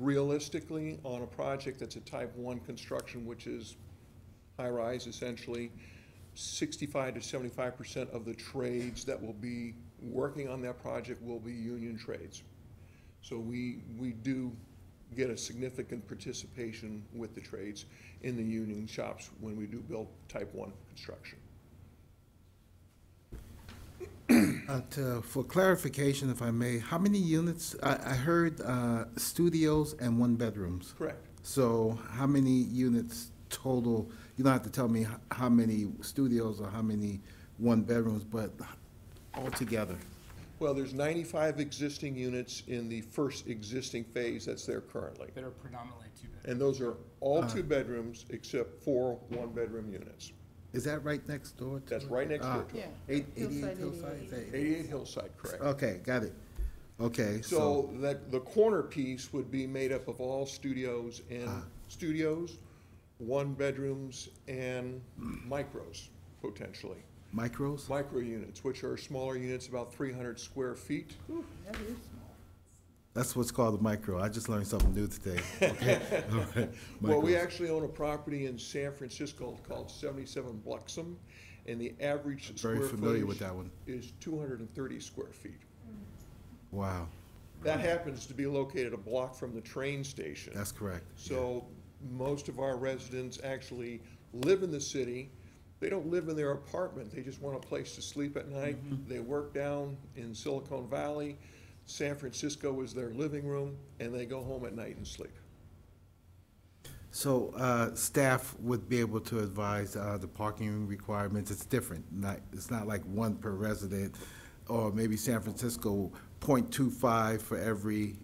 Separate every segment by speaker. Speaker 1: realistically, on a project that's a type one construction, which is high-rise essentially, sixty-five to seventy-five percent of the trades that will be working on that project will be union trades. So we, we do get a significant participation with the trades in the union shops when we do build type one construction.
Speaker 2: Uh, to, for clarification, if I may, how many units, I, I heard, uh, studios and one bedrooms.
Speaker 1: Correct.
Speaker 2: So how many units total? You don't have to tell me h- how many studios or how many one bedrooms, but altogether.
Speaker 1: Well, there's ninety-five existing units in the first existing phase that's there currently.
Speaker 3: that are predominantly two bedroom.
Speaker 1: And those are all
Speaker 2: Uh-huh.
Speaker 1: two bedrooms except four one-bedroom units.
Speaker 2: Is that right next door? to- Uh,
Speaker 1: That's right next door to it.
Speaker 2: Eight-
Speaker 4: Hillside
Speaker 2: Eighty-eight Hillside? is that eight-
Speaker 1: Eighty-eight Hillside, correct.
Speaker 2: Ah. Okay, got it. Okay, so,
Speaker 1: So that, the corner piece would be made up of all studios and
Speaker 2: Ah.
Speaker 1: studios, one-bedrooms and micros, potentially.
Speaker 2: micros?
Speaker 1: Micro units, which are smaller units, about three hundred square feet.
Speaker 4: That is small.
Speaker 2: That's what's called a micro. I just learned something new today. Okay, all right.
Speaker 1: Well, we
Speaker 2: Micros.
Speaker 1: actually own a property in San Francisco called seventy-seven Bluxom, and the average square
Speaker 2: Very
Speaker 1: footage
Speaker 2: familiar with that one.
Speaker 1: is two hundred and thirty square feet.
Speaker 2: Wow,
Speaker 1: That happens to be located a block from the train station.
Speaker 2: that's correct.
Speaker 1: So most of our residents actually live in the city. They don't live in their apartment. They just want a place to sleep at night. They work down in Silicon Valley. San Francisco is their living room, and they go home at night and sleep.
Speaker 2: So uh, staff would be able to advise uh, the parking requirements, it's different, not, it's not like one per resident, or maybe San Francisco, 0.25 for every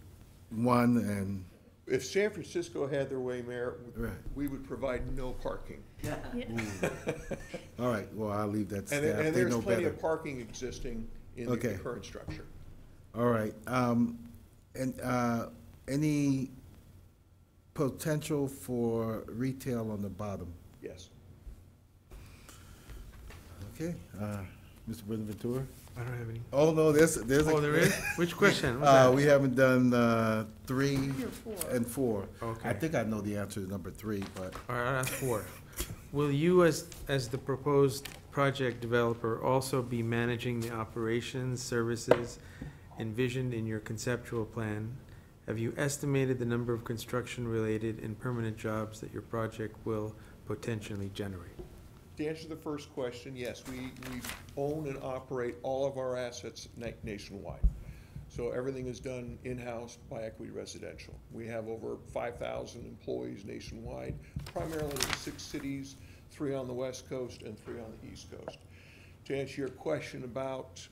Speaker 2: one, and,
Speaker 1: If San Francisco had their way, Mayor,
Speaker 2: Right.
Speaker 1: we would provide no parking.
Speaker 2: all right, well, I'll leave that to
Speaker 1: And,
Speaker 2: staff,
Speaker 1: and
Speaker 2: they
Speaker 1: there's
Speaker 2: know
Speaker 1: plenty
Speaker 2: better.
Speaker 1: of parking existing in the
Speaker 2: Okay.
Speaker 1: current structure.
Speaker 2: All right, um, and uh, any potential for retail on the bottom?
Speaker 1: Yes.
Speaker 2: Okay, uh, Mr. Bonaventura?
Speaker 5: I don't have any.
Speaker 2: Oh, no, there's, there's. a-
Speaker 5: Oh, there is? Which question? What's
Speaker 2: Uh,
Speaker 5: that?
Speaker 2: we haven't done, uh, three
Speaker 4: Three or four.
Speaker 2: and four. I
Speaker 5: Okay.
Speaker 2: think I know the answer to number three, but
Speaker 5: All right, I'll ask four. Will you, as, as the proposed project developer, also be managing the operations, services envisioned in your conceptual plan? Have you estimated the number of construction-related and permanent jobs that your project will potentially generate?
Speaker 1: To answer the first question, yes, we, we own and operate all of our assets na- nationwide. So everything is done in-house by Equity Residential. We have over five thousand employees nationwide, primarily in six cities, three on the west coast and three on the east coast. To answer your question about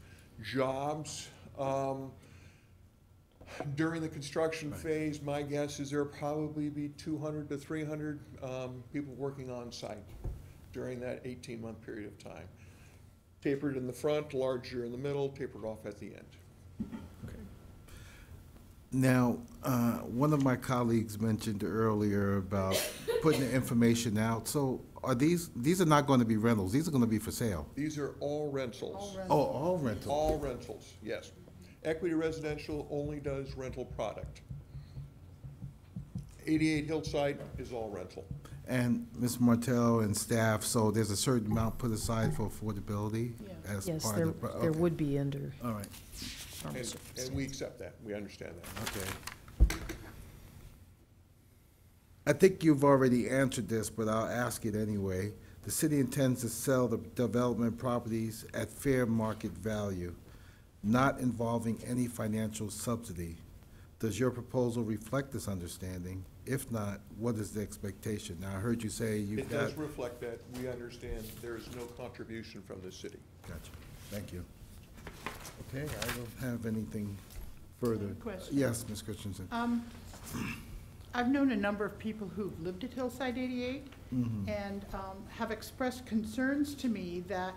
Speaker 1: jobs, um, during the construction phase, my guess is there'll probably be two hundred to three hundred, um, people working on site during that eighteen-month period of time. Tapered in the front, larger in the middle, tapered off at the end.
Speaker 2: now, uh, one of my colleagues mentioned earlier about putting the information out. So are these, these are not gonna be rentals, these are gonna be for sale?
Speaker 1: These are all rentals.
Speaker 4: All rentals.
Speaker 2: Oh, all rentals?
Speaker 1: All rentals, yes. Equity Residential only does rental product. Eighty-eight Hillside is all rental.
Speaker 2: And Ms. Martell and staff, so there's a certain amount put aside for affordability
Speaker 4: Yeah.
Speaker 2: as
Speaker 6: Yes,
Speaker 2: part
Speaker 6: there,
Speaker 2: of the. pro-
Speaker 6: there
Speaker 2: okay.
Speaker 6: would be under
Speaker 2: All right,
Speaker 6: normal
Speaker 1: And,
Speaker 6: circumstances.
Speaker 1: and we accept that, we understand that.
Speaker 2: Okay. I think you've already answered this, but I'll ask it anyway. The city intends to sell the development properties at fair market value, not involving any financial subsidy. Does your proposal reflect this understanding? If not, what is the expectation? Now, I heard you say you've
Speaker 1: It
Speaker 2: got.
Speaker 1: does reflect that, we understand there is no contribution from the city.
Speaker 2: Gotcha, thank you. Okay, I don't have anything further.
Speaker 4: Any questions?
Speaker 2: Yes, Ms. Christensen.
Speaker 4: Um, I've known a number of people who've lived at Hillside 88 and um, have expressed concerns to me that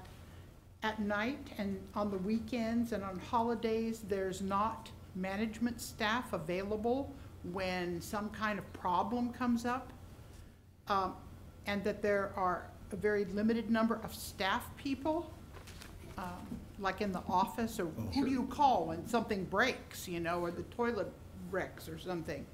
Speaker 4: at night and on the weekends and on holidays, there's not management staff available when some kind of problem comes up. um, And that there are a very limited number of staff people, um, like in the office, or who do you call when something breaks, you know, or the toilet wrecks or something?